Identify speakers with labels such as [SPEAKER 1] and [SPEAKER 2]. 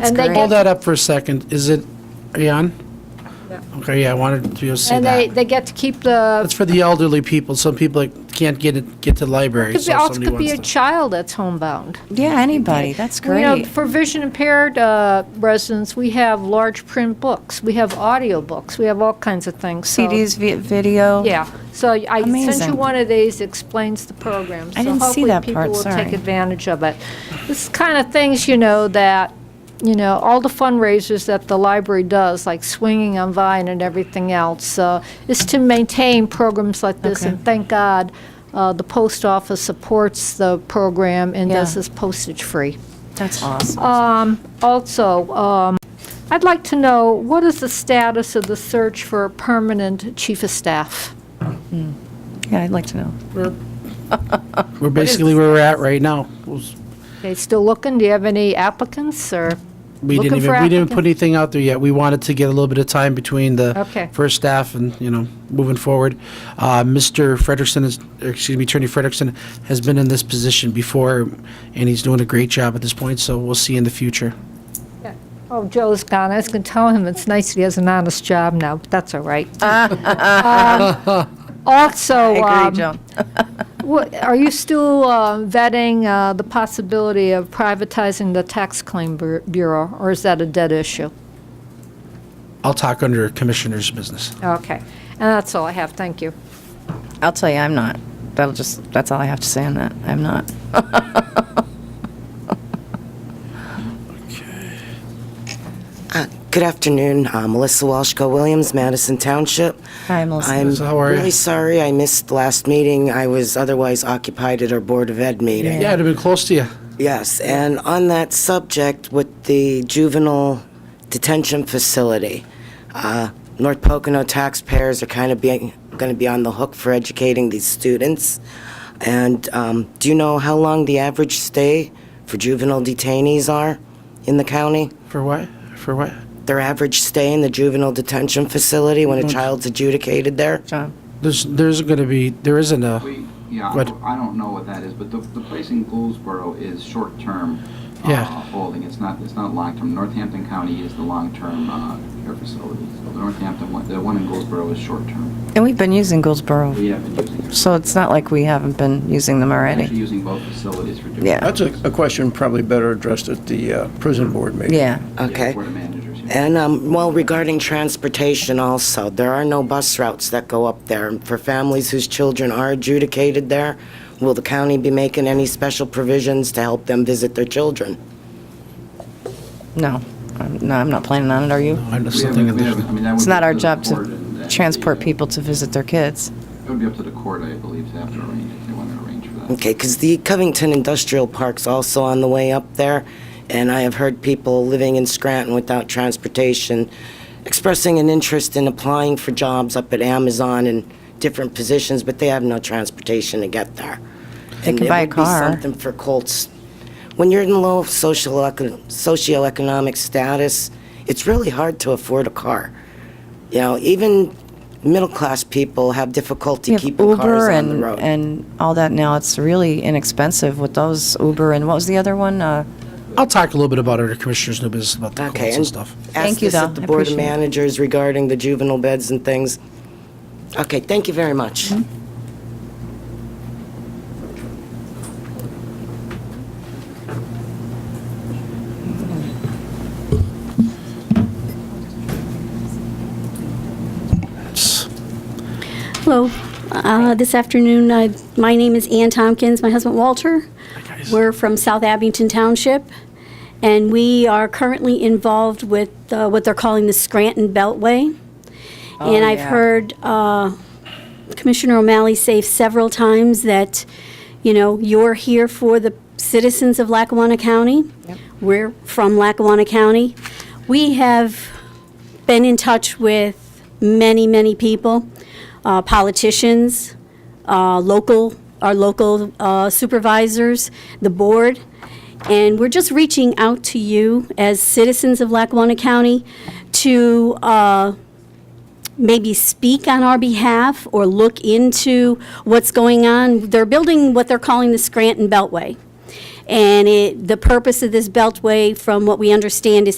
[SPEAKER 1] That's
[SPEAKER 2] And they
[SPEAKER 1] great.
[SPEAKER 2] get-
[SPEAKER 3] Hold that up for a second. Is it, are you on? Okay, yeah, I wanted to see
[SPEAKER 2] And they,
[SPEAKER 3] that.
[SPEAKER 2] they get to keep the,
[SPEAKER 3] It's for the elderly people. Some people like, can't get it, get to the library.
[SPEAKER 2] could be,
[SPEAKER 3] so
[SPEAKER 2] also
[SPEAKER 3] somebody
[SPEAKER 2] could be a
[SPEAKER 3] wants to-
[SPEAKER 2] child that's homebound.
[SPEAKER 1] Yeah, anybody, that's
[SPEAKER 2] You know,
[SPEAKER 1] great.
[SPEAKER 2] for vision impaired uh, residents, we have large print books, we have audiobooks, we have all kinds of things. so-
[SPEAKER 1] CDs, vi- video.
[SPEAKER 2] Yeah, so I sent you
[SPEAKER 1] Amazing.
[SPEAKER 2] one of these, explains the program.
[SPEAKER 1] I didn't see that part,
[SPEAKER 2] So hopefully people will take
[SPEAKER 1] sorry.
[SPEAKER 2] advantage of it. This is kind of things, you know, that, you know, all the fundraisers that the library does, like Swinging on Vine and everything else, uh, is to maintain programs like this.
[SPEAKER 1] Okay.
[SPEAKER 2] And thank God, uh, the post office supports the program and does
[SPEAKER 1] Yeah.
[SPEAKER 2] this postage-free. Uh,
[SPEAKER 1] That's awesome.
[SPEAKER 2] Also, um, I'd like to know, what is the status of the search for a permanent chief of staff?
[SPEAKER 1] Yeah, I'd like to know.
[SPEAKER 3] We're basically where we're at right now. Was-
[SPEAKER 2] Okay, still looking, do you have any applicants, or,
[SPEAKER 3] We
[SPEAKER 2] Looking
[SPEAKER 3] didn't
[SPEAKER 2] for
[SPEAKER 3] even, we didn't
[SPEAKER 2] applicants?
[SPEAKER 3] put anything out there yet. We wanted to get a little bit of time between
[SPEAKER 2] Okay.
[SPEAKER 3] the first staff and, you know, moving forward. Uh, Mr. Frederickson is, or excuse me, Attorney Frederickson has been in this position before, and he's doing a great job at this point, so we'll see in the future.
[SPEAKER 2] oh, Joe's gone, I was going to tell him it's nice he has an honest job now, but that's all right. Um, Also, um, what- are you still uh, vetting uh, the possibility of privatizing the tax claim bu- bureau, or is that a dead issue?
[SPEAKER 3] I'll talk under Commissioner's business.
[SPEAKER 2] Okay, and that's all I have, thank you.
[SPEAKER 1] I'll tell you, I'm not. That'll just, that's all I have to say on that. I'm not.
[SPEAKER 4] Uh, Good afternoon, Uh, Melissa Walsh, Williams, Madison Township.
[SPEAKER 1] Hi, Melissa.
[SPEAKER 4] I'm
[SPEAKER 3] Melissa, how are you?
[SPEAKER 4] really sorry I missed last meeting. I was otherwise occupied at our Board of Ed meeting.
[SPEAKER 3] Yeah, it'd have been close to you.
[SPEAKER 4] Yes, and on that subject with the juvenile detention facility, uh, North Pocono taxpayers are kind of being, going to be on the hook for educating these students. And um, do you know how long the average stay for juvenile detainees are in the county?
[SPEAKER 3] For what? For what?
[SPEAKER 4] their average stay in the juvenile detention facility when a child's adjudicated there?
[SPEAKER 1] John.
[SPEAKER 3] There's, there's going to be, there isn't a,
[SPEAKER 5] We, yeah,
[SPEAKER 3] What?
[SPEAKER 5] I don't know what that is, but the, the place in Goldsboro is short-term uh,
[SPEAKER 3] Yeah.
[SPEAKER 5] holding. It's not, it's not long-term. Northampton County is the long-term uh, care facility. So the Northampton one, the one in Goldsboro is short-term.
[SPEAKER 1] And we've been using Goldsboro,
[SPEAKER 5] We have been using,
[SPEAKER 1] so it's not like we haven't been using them
[SPEAKER 5] actually
[SPEAKER 1] already.
[SPEAKER 5] using both facilities for different.
[SPEAKER 1] Yeah.
[SPEAKER 6] That's a, a question probably better addressed at the uh, prison board meeting.
[SPEAKER 1] Yeah.
[SPEAKER 4] Okay.
[SPEAKER 5] For the managers. yeah.
[SPEAKER 4] And, um, well, regarding transportation also, there are no bus routes that go up there. And For families whose children are adjudicated there, will the county be making any special provisions to help them visit their children?
[SPEAKER 1] No. I'm- No, I'm not planning on it, are you?
[SPEAKER 3] I know
[SPEAKER 5] We haven't-
[SPEAKER 3] something, in
[SPEAKER 5] we
[SPEAKER 3] there.
[SPEAKER 5] haven't- I mean, that would
[SPEAKER 1] It's
[SPEAKER 5] be up
[SPEAKER 1] not our
[SPEAKER 5] the
[SPEAKER 1] job
[SPEAKER 5] court and- and
[SPEAKER 1] to
[SPEAKER 5] the,
[SPEAKER 1] transport
[SPEAKER 5] uh,
[SPEAKER 1] people to visit their kids.
[SPEAKER 5] It would be up to the court, I believe, to have to arrange, if they want to arrange for that.
[SPEAKER 4] Okay, because the Covington Industrial Park's also on the way up there, and I have heard people living in Scranton without transportation expressing an interest in applying for jobs up at Amazon and different positions, but they have no transportation to get there. They
[SPEAKER 1] can buy a car.
[SPEAKER 4] And it would be something for Colts. When you're in low social, econ- socioeconomic status, it's really hard to afford a car. You know, even middle-class people have difficulty
[SPEAKER 1] You have
[SPEAKER 4] keeping cars
[SPEAKER 1] Uber
[SPEAKER 4] on the
[SPEAKER 1] and,
[SPEAKER 4] road.
[SPEAKER 1] and all that now. It's really inexpensive with those Uber and what was the other one? Uh,
[SPEAKER 3] I'll talk a little bit about under Commissioner's new business, about the
[SPEAKER 4] Okay,
[SPEAKER 3] Colts
[SPEAKER 4] and
[SPEAKER 3] and stuff.
[SPEAKER 1] Thank
[SPEAKER 4] ask
[SPEAKER 1] you,
[SPEAKER 4] this
[SPEAKER 1] though.
[SPEAKER 4] at the
[SPEAKER 1] I
[SPEAKER 4] Board of
[SPEAKER 1] appreciate it.
[SPEAKER 4] Managers regarding the juvenile beds and things. Okay, thank you very
[SPEAKER 1] Mm-hmm.
[SPEAKER 4] much.
[SPEAKER 7] Hello. Uh, This afternoon, I- my name is Ann Tompkins, my husband Walter. We're from South Abington Township, and we are currently involved with uh, what they're calling the Scranton Beltway. And I've
[SPEAKER 1] yeah.
[SPEAKER 7] heard uh, Commissioner O'Malley say several times that, you know, you're here for the citizens of Lackawanna County. We're from Lackawanna County. We have been in touch with many, many people, uh, politicians, uh, local, our local uh, supervisors, the board, and we're just reaching out to you as citizens of Lackawanna County to uh, maybe speak on our behalf or look into what's going on. They're building what they're calling the Scranton Beltway. And it, the purpose of this beltway, from what we understand, is